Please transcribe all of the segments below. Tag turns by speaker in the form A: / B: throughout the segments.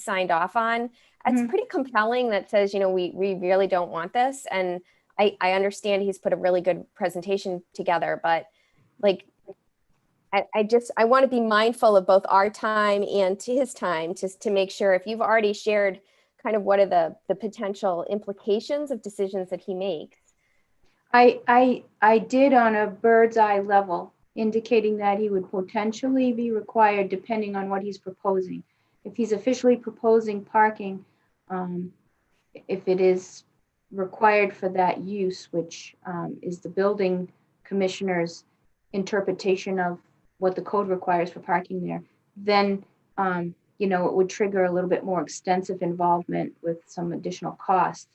A: signed off on. It's
B: Mhm.
A: pretty compelling that says, you know, we we really don't want this. And I, I understand he's put a really good presentation together, but like I, I just I want to be mindful of both our time and to his time just to make sure if you've already shared kind of what are the the potential implications of decisions that he makes.
B: I, I, I did on a bird's eye level, indicating that he would potentially be required depending on what he's proposing. If he's officially proposing parking, um, if it is required for that use, which, um, is the building commissioner's interpretation of what the code requires for parking there, then, um, you know, it would trigger a little bit more extensive involvement with some additional costs.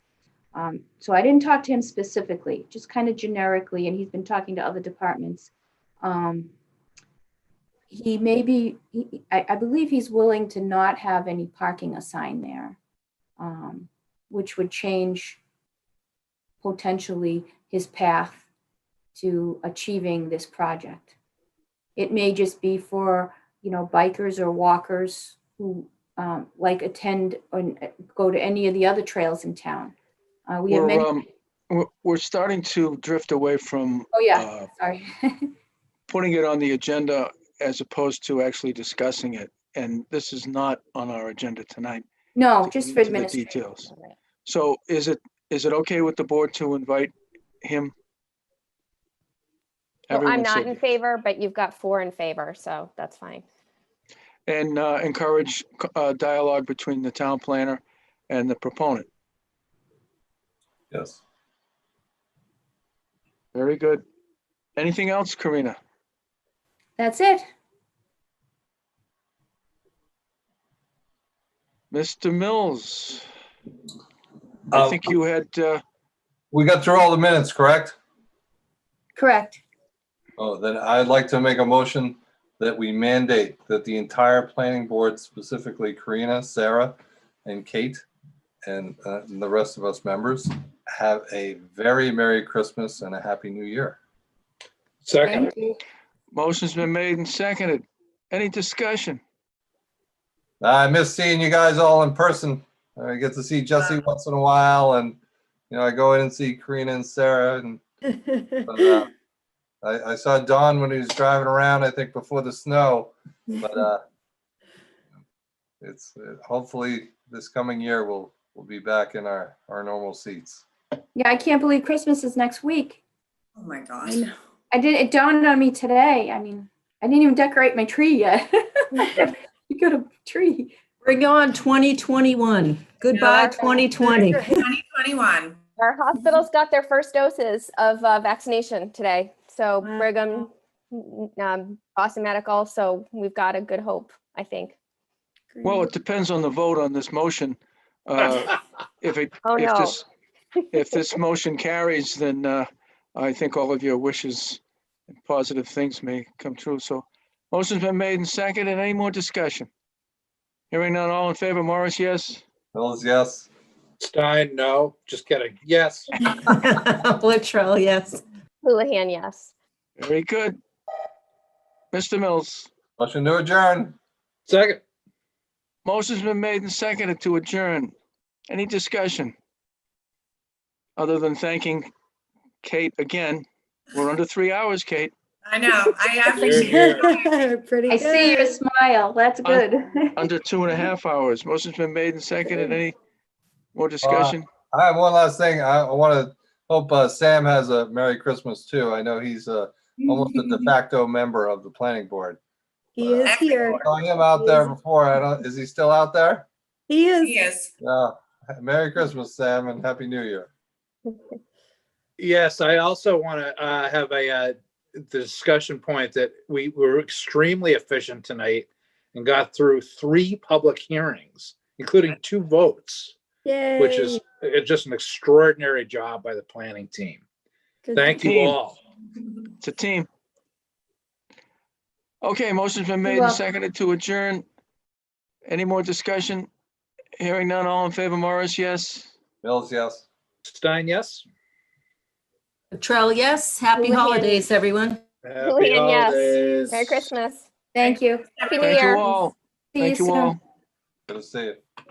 B: Um, so I didn't talk to him specifically, just kind of generically, and he's been talking to other departments. Um, he may be, he, I, I believe he's willing to not have any parking assigned there, um, which would change potentially his path to achieving this project. It may just be for, you know, bikers or walkers who um, like attend and uh, go to any of the other trails in town. Uh, we have
C: We're,
B: many,
C: um, we're- we're starting to drift away from
B: oh yeah,
C: uh,
B: sorry.
C: putting it on the agenda as opposed to actually discussing it. And this is not on our agenda tonight.
B: No,
C: to
B: Oh, just
C: get
B: for
C: into the
B: administration.
C: Details. So is it, is it okay with the board to invite him?
A: Well, I'm
C: Everyone
A: not
C: said
A: in
C: yes.
A: favor, but you've got four in favor, so that's fine.
C: And uh, encourage c- uh, dialogue between the town planner and the proponent.
D: Yes.
C: Very good. Anything else, Karina?
B: That's it.
C: Mr. Mills, I
D: Um,
C: think you had, uh,
D: We got through all the minutes, correct?
B: Correct.
D: Oh, then I'd like to make a motion that we mandate that the entire planning board, specifically Karina, Sarah, and Kate, and uh, and the rest of us members, have a very Merry Christmas and a Happy New Year.
E: Second,
B: Thank you.
C: Motion's been made and seconded. Any discussion?
D: I miss seeing you guys all in person. I get to see Jesse once in a while and, you know, I go in and see Karina and Sarah and but, uh, I, I saw Don when he was driving around, I think before the snow, but, uh, it's, uh, hopefully this coming year, we'll, we'll be back in our, our normal seats.
B: Yeah, I can't believe Christmas is next week.
F: Oh my
B: I
F: gosh.
B: know. I did, it dawned on me today. I mean, I didn't even decorate my tree yet. You got a tree.
G: Bring on 2021.
A: Yeah.
G: Goodbye, 2020.
F: 2021.
A: Our hospitals got their first doses of uh, vaccination today. So
G: Wow.
A: Brigham, n- n- um, Boston Medical. So we've got a good hope, I think.
C: Well, it depends on the vote on this motion. Uh, If it,
A: Oh,
C: if
A: no.
C: this, if this motion carries, then uh, I think all of your wishes and positive things may come true. So motion's been made and seconded. Any more discussion? Hearing none, all in favor, Morris, yes?
D: Phil's yes.
E: Stein, no, just kidding. Yes,
G: Latrell, yes.
A: Houlihan, yes.
C: Very good. Mr. Mills,
D: Motion to adjourn.
E: second,
C: motion's been made and seconded to adjourn. Any discussion? Other than thanking Kate again. We're under three hours, Kate.
F: I know. I
E: Very
F: appreciate
E: good.
F: it.
G: Pretty
B: I see your smile. That's
C: Un-
B: good.
C: Under two and a half hours. Motion's been made and seconded. Any more discussion?
D: I have one last thing. I, I want to hope uh, Sam has a Merry Christmas too. I know he's uh, almost a de facto member of the planning board. Oh,
G: He is here.
D: I saw him out there before. I don't, is he still out there?
G: He is.
F: Yes.
D: Yeah. Merry Christmas, Sam, and Happy New Year.
E: yes, I also want to uh, have a uh, discussion point that we were extremely efficient tonight and got through three public hearings, including two votes, which is uh, just an extraordinary job by the planning team. Thank you
C: Team.
E: all.
C: It's a team. Okay, motion's been made and
B: welcome.
C: seconded to adjourn. Any more discussion? Hearing none, all in favor, Morris, yes?
D: Mills, yes.
E: Stein, yes?
G: Latrell, yes. Happy
B: Houlihan.
G: holidays, everyone.
E: Happy
A: Houlihan, yes.
E: holidays.
A: Merry Christmas.
B: Thank you.
A: Happy New
C: Thank
A: Year.
C: you all.
B: See you
C: Thank you
B: soon.
C: all.
D: Good to see you.